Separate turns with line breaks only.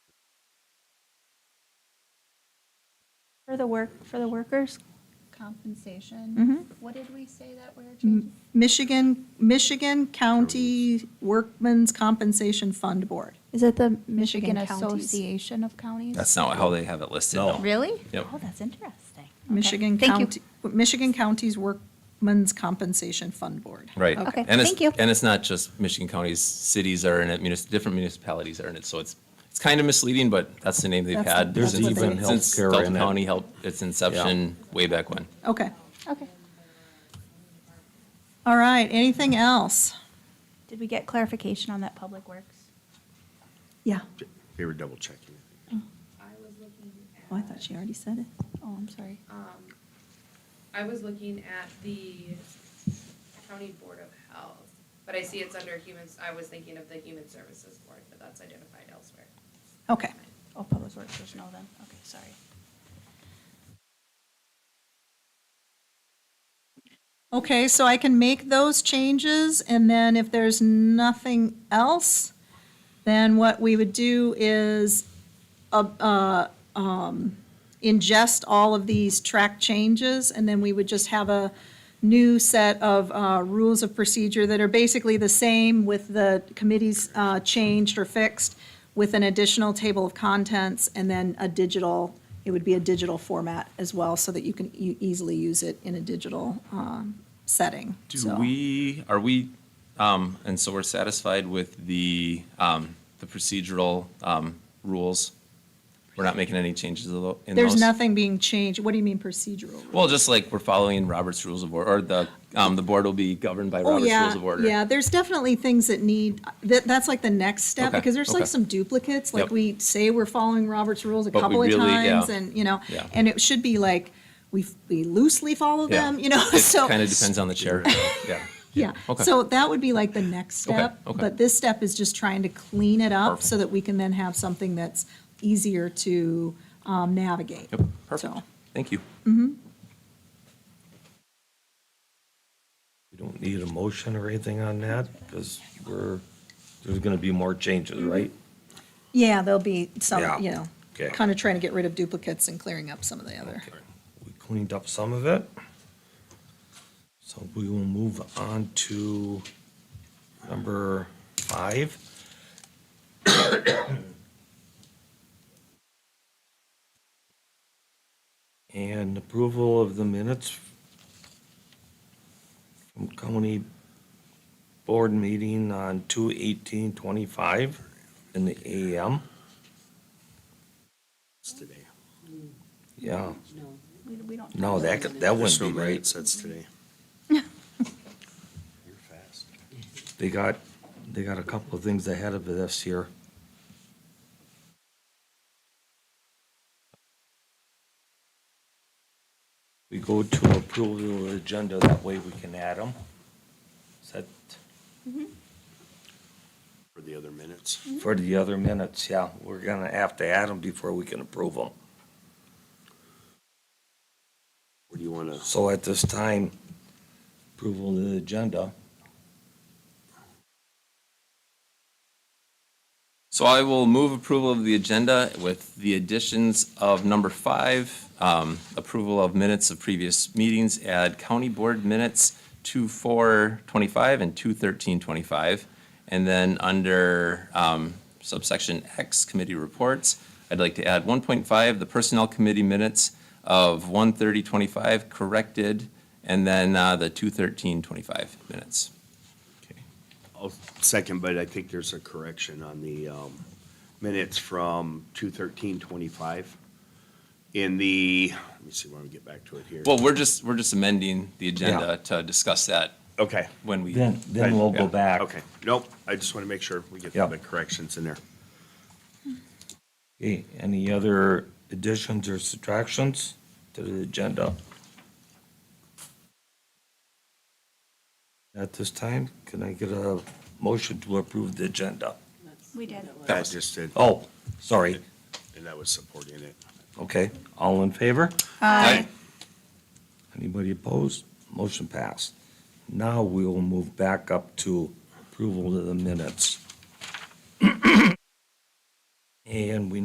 For the work, for the workers?
compensation.
Mhm.
What did we say that we're
M-
changing?
Michigan, Michigan County Workmen's Compensation Fund Board.
Is it the
Michigan
Michigan Counties?
Association of Counties?
That's not how they have it listed.
No.
Really?
Yep.
Oh, that's interesting. Okay.
Michigan
Thank you.
County, Michigan County's Workmen's Compensation Fund Board.
Right.
Okay,
And it's-
thank you.
And it's not just Michigan counties, cities are in it, munis- different municipalities are in it, so it's, it's kind of misleading, but that's the name they've
That's-
had.
There's
since-
even
Since
healthcare
Delta
in it.
County helped its inception way back when.
Okay,
Okay.
all right, anything else?
Did we get clarification on that Public Works?
Yeah,
They were double checking.
I was looking at. um,
oh, I thought she already said it.
Oh, I'm sorry.
I was looking at the county board of health, but I see it's under humans, I was thinking of the human services board, but that's identified elsewhere.
Okay,
Oh, Public Works, there's no then, okay, sorry.
okay, so I can make those changes, and then if there's nothing else, then what we would do is uh, uh, um, ingest all of these track changes, and then we would just have a new set of uh, rules of procedure that are basically the same with the committees uh, changed or fixed, with an additional table of contents, and then a digital, it would be a digital format as well, so that you can e- easily use it in a digital um, setting.
Do
So-
we, are we, um, and so we're satisfied with the, um, the procedural, um, rules? We're not making any changes to tho- in those?
There's nothing being changed. What do you mean procedural?
Well, just like we're following Robert's Rules of Order, or the, um, the board will be governed by
Oh,
Robert's
yeah,
Rules of Order.
yeah, there's definitely things that need, that, that's like the next step,
Okay,
because there's like
okay.
some duplicates, like
Yep.
we say we're following Robert's rules a
But we
couple of
really-
times,
yeah.
and, you know,
Yeah.
and it should be like, we, we loosely follow
Yeah.
them, you know,
It
so.
Kind of depends on the chair, yeah.
Yeah,
Okay.
so that would be like the next
Okay,
step,
okay.
but this step is just trying to clean it up so
Perfect.
that we can then have something that's easier to um, navigate.
Yep, perfect.
So-
Thank you.
We don't need a motion or anything on that because we're, there's going to be more changes, right?
Yeah, there'll be
Yeah.
some, you know,
Okay.
kind of trying to get rid of duplicates and clearing up some of the other.
We cleaned up some of it. So we will move on to number five. And approval of the minutes from county board meeting on two eighteen twenty-five in the AM.
It's today.
Yeah,
We, we don't.
no, that, could- that wouldn't
This
be
room, right,
right.
it says today. You're fast.
They got, they got a couple of things ahead of this here. We go to approval of the agenda, that way we can add them. Is that
For the other minutes.
for the other minutes? Yeah, we're gonna have to add them before we can approve them.
Or do you want to,
So at this time, approval of the agenda.
So I will move approval of the agenda with the additions of number five, um, approval of minutes of previous meetings, add county board minutes two four twenty-five and two thirteen twenty-five. And then under um, subsection X, committee reports, I'd like to add one point five, the personnel committee minutes of one thirty twenty-five corrected, and then uh, the two thirteen twenty-five minutes.
I'll second, but I think there's a correction on the um, minutes from 21325. In the, let me see when we get back to it here.
Well, we're just, we're just amending the agenda to discuss that
Okay.
when we.
Then, then we'll go
Yeah,
back.
Okay, nope, I just want to make sure we get
Yeah.
the corrections in there.
Okay, any other additions or subtractions to the agenda? At this time, can I get a motion to approve the agenda?
We did.
That just did,
Oh, sorry,
and that was supporting it.
okay, all in favor?
Aye.
Anybody opposed? Motion passed. Now we will move back up to approval of the minutes. And we